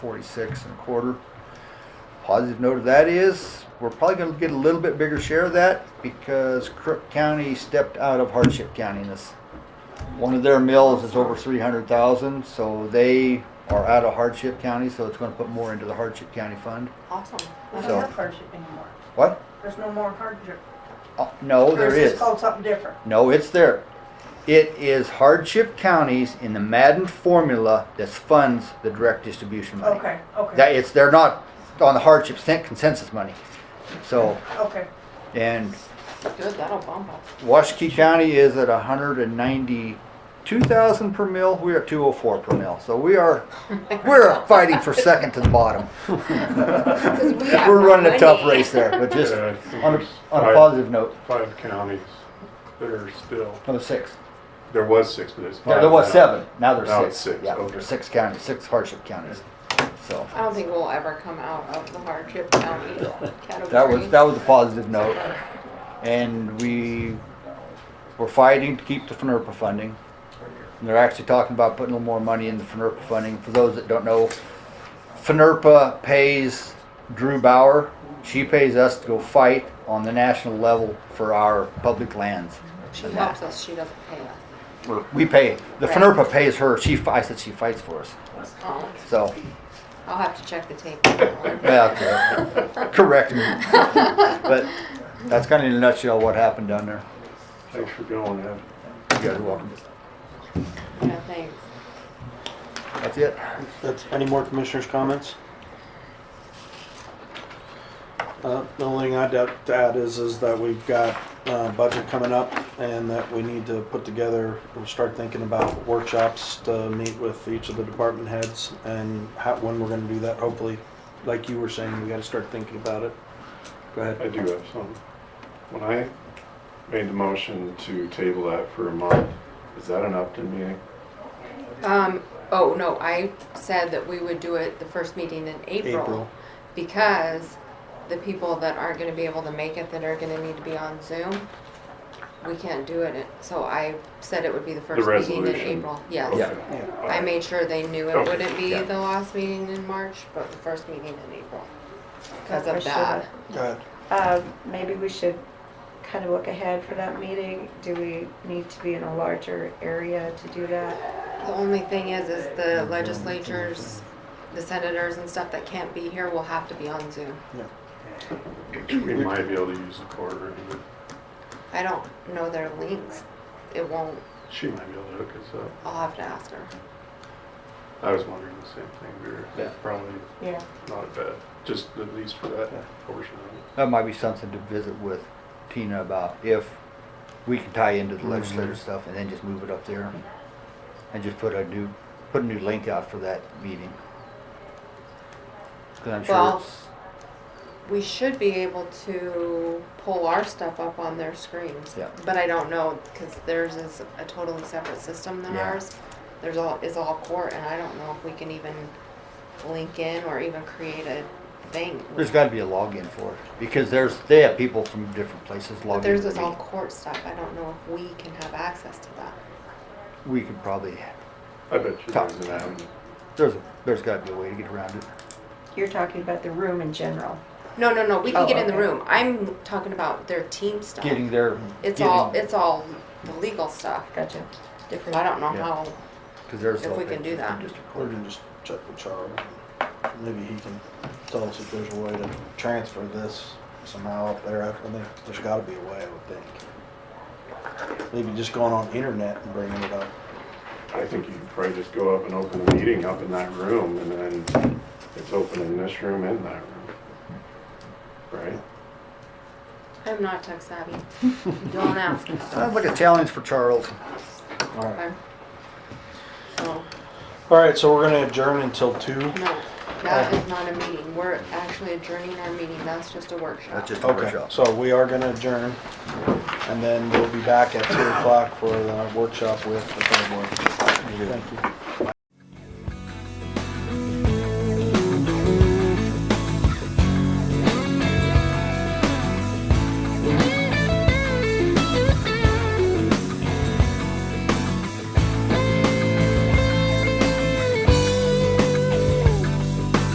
46 and a quarter. Positive note of that is we're probably going to get a little bit bigger share of that because Crook County stepped out of hardship county in this. One of their mills is over 300,000, so they are out of hardship county, so it's going to put more into the hardship county fund. Awesome. We So- don't have hardship anymore. What? There's no more hardship. Uh, no, there Or it's is. called something different. No, it's there. It is hardship counties in the Madden formula that funds the direct distribution money. Okay, okay. That it's they're not on the hardship cen- consensus money. So Okay, and Good, that'll bump us. Washakie County is at 192,000 per mill. We are at 204 per mill. So we are we're fighting for second to the bottom. we have we're running a tough money. race there, but just Yeah, I think on a, there's on a five- positive note, Five counties that are still, no six. there was six, but it's There, five. there was now. seven. Now there's Now six. it's six, Yeah, okay. there's six counties, six hardship counties. So I don't think we'll ever come out of the hardship county category. that was that was a positive note, and we were fighting to keep the E FNRPA funding. And they're actually talking about putting a little more money in the E FNRPA funding. For those that don't know, E FNRPA pays Drew Bauer. She pays us to go fight on the national level for our public lands. She helps us, she doesn't pay us. We pay the E Right. FNRPA pays her. She fi- I said she fights for us. Oh, So. I'll have to check the tape. on that one. Yeah, okay. correct me. But that's kind of in a nutshell what happened down there. Thanks for going, Ed. You guys are welcome. Yeah, thanks. That's it. That's, any more commissioners' comments? Uh, the only thing I'd add to add is, is that we've got, uh, budget coming up and that we need to put together, and start thinking about workshops to meet with each of the department heads and how, when we're gonna do that, hopefully, like you were saying, we gotta start thinking about it. Go I ahead. do have some. When I made the motion to table that for a month, is that an Upton meeting? Um, oh, no, I said that we would do it the first meeting in April. April. Because the people that aren't gonna be able to make it, that are gonna need to be on Zoom, we can't do it, so I said it would be the first meeting in resolution. April, yes. Yeah. Yeah. Uh, I made sure they knew it Okay. wouldn't be Yeah. the last meeting in March, but the first meeting in April, because of Push it that. Go ahead. Uh, Maybe we should kind of look ahead for that meeting. Do we need to be in a larger area to do that? The only thing is, is the legislatures, the senators and stuff that can't be here will have to be on Zoom. We might be able to use the courtroom. I don't know their links, it won't, She might be able to hook us up. I'll have to ask her. I was wondering the same thing. We were Yeah. probably Yeah. not bad, just at least for that portion of it. That might be something to visit with Tina about if we can tie into the legislative stuff and then just move it up there. And just put a new, put a new link out for that meeting. Cause I'm sure Well- it's, We should be able to pull our stuff up on their screens. Yeah. But I don't know, because theirs is a totally separate system than Yeah. ours. There's all, is all court, and I don't know if we can even link in or even create a thing. there's gotta be a login for it because there's, they have people from different places logging. But theirs into is the all meeting. court stuff, I don't know if we can have access to that. We could probably, I bet you Top. there's an avenue. there's, a- there's gotta be a way to get around it. You're talking about the room in general. No, no, no, we can Oh, get in the okay. room, I'm talking about their team stuff. Getting there. It's getting- all, it's all the legal stuff, Gotcha. different, I don't know Yeah. how, Cause there's. if we all can do pictures from that. district Or court. we can just check with Charlie. Maybe he can tell us if there's a way to transfer this somehow up there. I think there's gotta be a way, I would think. Maybe just going on internet and bringing it up. I think you could probably just go up and open the meeting up in that room and then it's open in this room and that room. Right? I'm not tech savvy. Don't ask. Sounds like a challenge for Charles. All right. Okay. So, All right, so we're gonna adjourn until two. no, that is not a meeting, we're actually adjourning our meeting, that's just a workshop. That's just a Okay, workshop. so we are gonna adjourn. And then we'll be back at two o'clock for the workshop with the third board. Thank you.